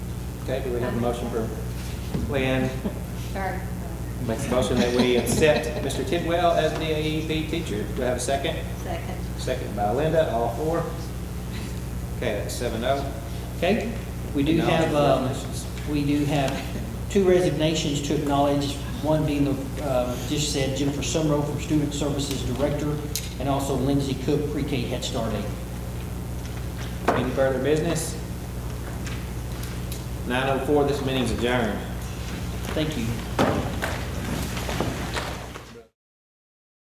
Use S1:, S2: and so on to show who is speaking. S1: Okay, do we have a motion for Lynn?
S2: Sorry.
S1: Makes a motion that we accept Mr. Tidwell as the AEP teacher. Do I have a second?
S2: Second.
S1: Second by Linda, all four. Okay, that's seven oh.
S3: Okay, we do
S1: No.
S3: have, um, we do have two resignations to acknowledge, one being the, um, just said Jennifer Sumrow from Student Services Director, and also Lindsay Cook, pre-K Head Start Aide.
S1: Any further business? Nine oh four, this meeting's adjourned.
S3: Thank you.